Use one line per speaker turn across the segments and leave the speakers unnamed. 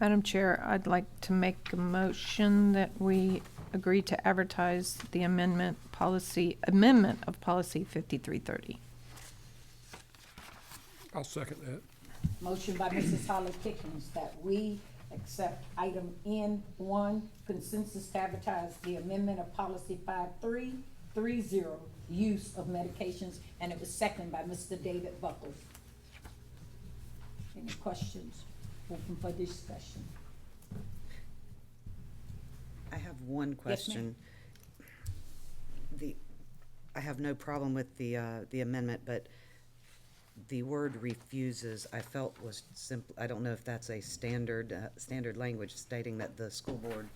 Madam Chair, I'd like to make a motion that we agree to advertise the amendment policy, amendment of policy 5330.
I'll second that.
Motion by Mrs. Holly Pickens that we accept item N one, consensus to advertise the amendment of policy five three three zero, use of medications, and it was seconded by Mr. David Buckles. Any questions? Open for discussion.
I have one question. The, I have no problem with the, uh, the amendment, but the word refuses, I felt was simple, I don't know if that's a standard, uh, standard language stating that the school board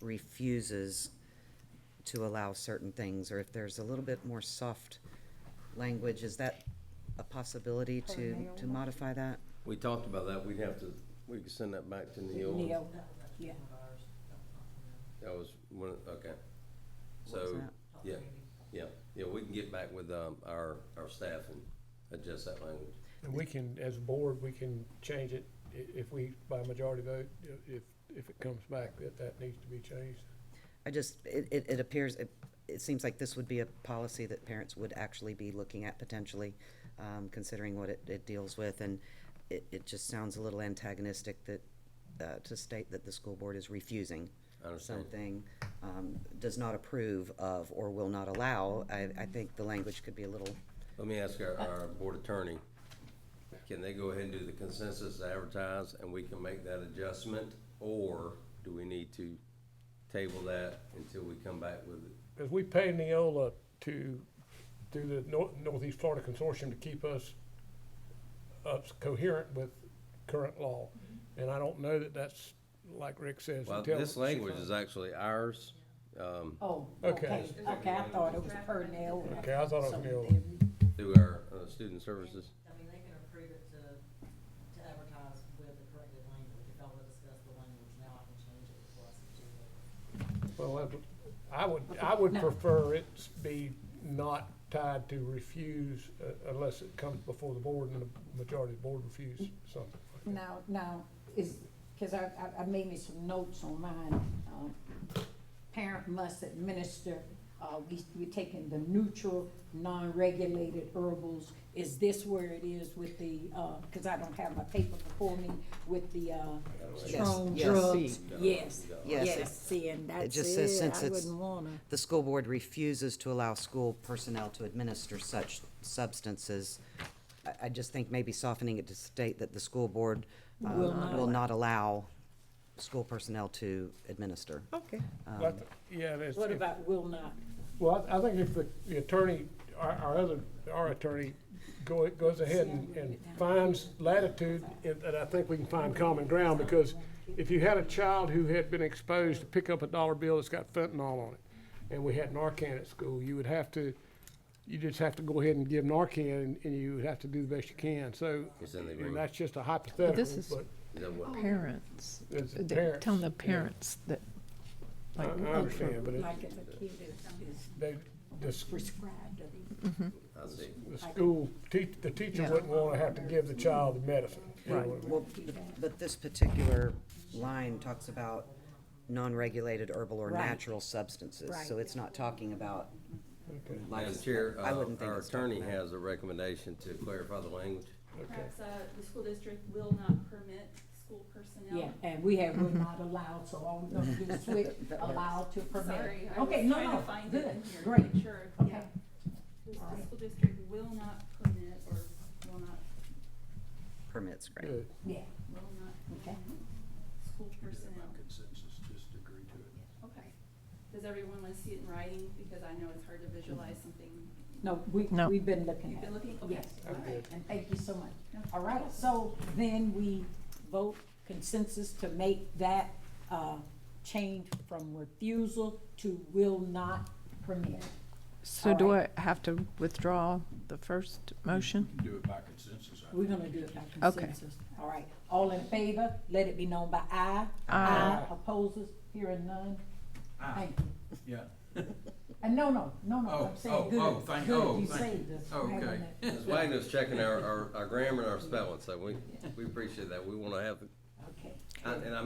refuses to allow certain things, or if there's a little bit more soft language, is that a possibility to, to modify that?
We talked about that, we'd have to, we could send that back to Neil.
Neil, yeah,
That was one, of- okay.
What was
So,
that?
yeah, yeah, yeah, we can get back with, um, our, our staff and adjust that language.
And we can, as a board, we can change it i- if we, by majority vote, i- if, if it comes back, that that needs to be changed.
I just, it, it, it appears, it, it seems like this would be a policy that parents would actually be looking at potentially, um, considering what it, it deals with, and it, it just sounds a little antagonistic that, uh, to state that the school board is refusing
I understand.
something, um, does not approve of or will not allow. I, I think the language could be a little,
Let me ask our, our board attorney, can they go ahead and do the consensus advertise and we can make that adjustment? Or do we need to table that until we come back with it?
Because we pay Neola to, through the Nor- Northeast Florida Consortium to keep us up coherent with current law. And I don't know that that's, like Rick says,
Well,
until.
this language is actually ours, um,
oh,
Okay.
okay, okay, I thought it was per Neil.
Okay, I thought it was Neola.
through our, uh, student services.
I mean, they can approve it to, to advertise with the corrected language, if y'all will discuss the language now, I can change it before I send you it.
Well, that would- I would, I would prefer it be not tied to refuse uh, unless it comes before the board and the majority of the board refuse something.
Now, now, is, cause I, I, I made me some notes on mine, um, parent must administer, uh, we, we're taking the neutral, non-regulated herbals, is this where it is with the, uh, cause I don't have my paper before me, with the, uh, strong
yes,
drugs?
see.
Yes,
Yes, it-
yes, see, and
it
that's
just says
it,
since
I
it's.
wouldn't wanna.
The school board refuses to allow school personnel to administer such substances. I, I just think maybe softening it to state that the school board uh,
Will not
will not allow school personnel to administer.
Okay.
But, Yeah, that's,
What about will not?
well, I I think if the the attorney, our, our other, our attorney go, goes ahead and, and finds latitude, and, and I think we can find common ground, because if you had a child who had been exposed to pick up a dollar bill that's got fentanyl on it, and we had Narcan at school, you would have to, you just have to go ahead and give Narcan, and- and you would have to do the best you can, so,
It's in the
and
agreement.
that's just a hypothetical,
is-
but
Is that what?
Parents,
it's the
they're telling the
parents,
parents that,
yeah.
like, oh.
I, I understand, but it,
Like if a kid is, is
they, the s-
prescribed, or they
I see.
the school, teach, the teacher
Yeah.
wouldn't wanna have to give the child the medicine. you know
Right,
what I mean?
well, but- but this particular line talks about non-regulated herbal or
Right.
natural substances. So
Right.
it's not talking about.
Madam
license-
Chair,
I
uh,
wouldn't think
our
it's talking
attorney
about-
has a recommendation to clarify the language.
Perhaps, uh, the school district will not permit school
Yeah,
personnel.
and we have, we're not allowed, so I'm gonna do switch, allowed to permit.
Sorry, I was
Okay, no,
trying
no,
to find
good,
it in here, to
great,
make sure, yeah.
okay.
The
All right.
school district will not permit or will not,
Permits, great.
Good.
Yeah,
will not
Okay.
permit school personnel.
consensus, just agree to it.
Okay. Does everyone want to see it in writing? Because I know it's hard to visualize something.
no, we,
No.
we've been looking
You've
at
been
it,
looking, okay,
yes.
all right.
And thank you so much. All right, so then we vote consensus to make that, uh, change from refusal to will not permit.
so do I have to withdraw the first motion?
You can do it by consensus, I
We're gonna do it by
Okay.
consensus. All right, all in favor, let it be known by aye. Aye. Opposes, hearing none. Thank you.
yeah.
Uh, no, no, no, no,
Oh,
I'm saying
oh,
good,
oh, thank-
good,
oh,
you
thank
saved us. from having
Okay.
that.
Ms. Wagner's checking our, our, our grammar and our spelling, so we, we appreciate that. We wanna have,
Okay.
and I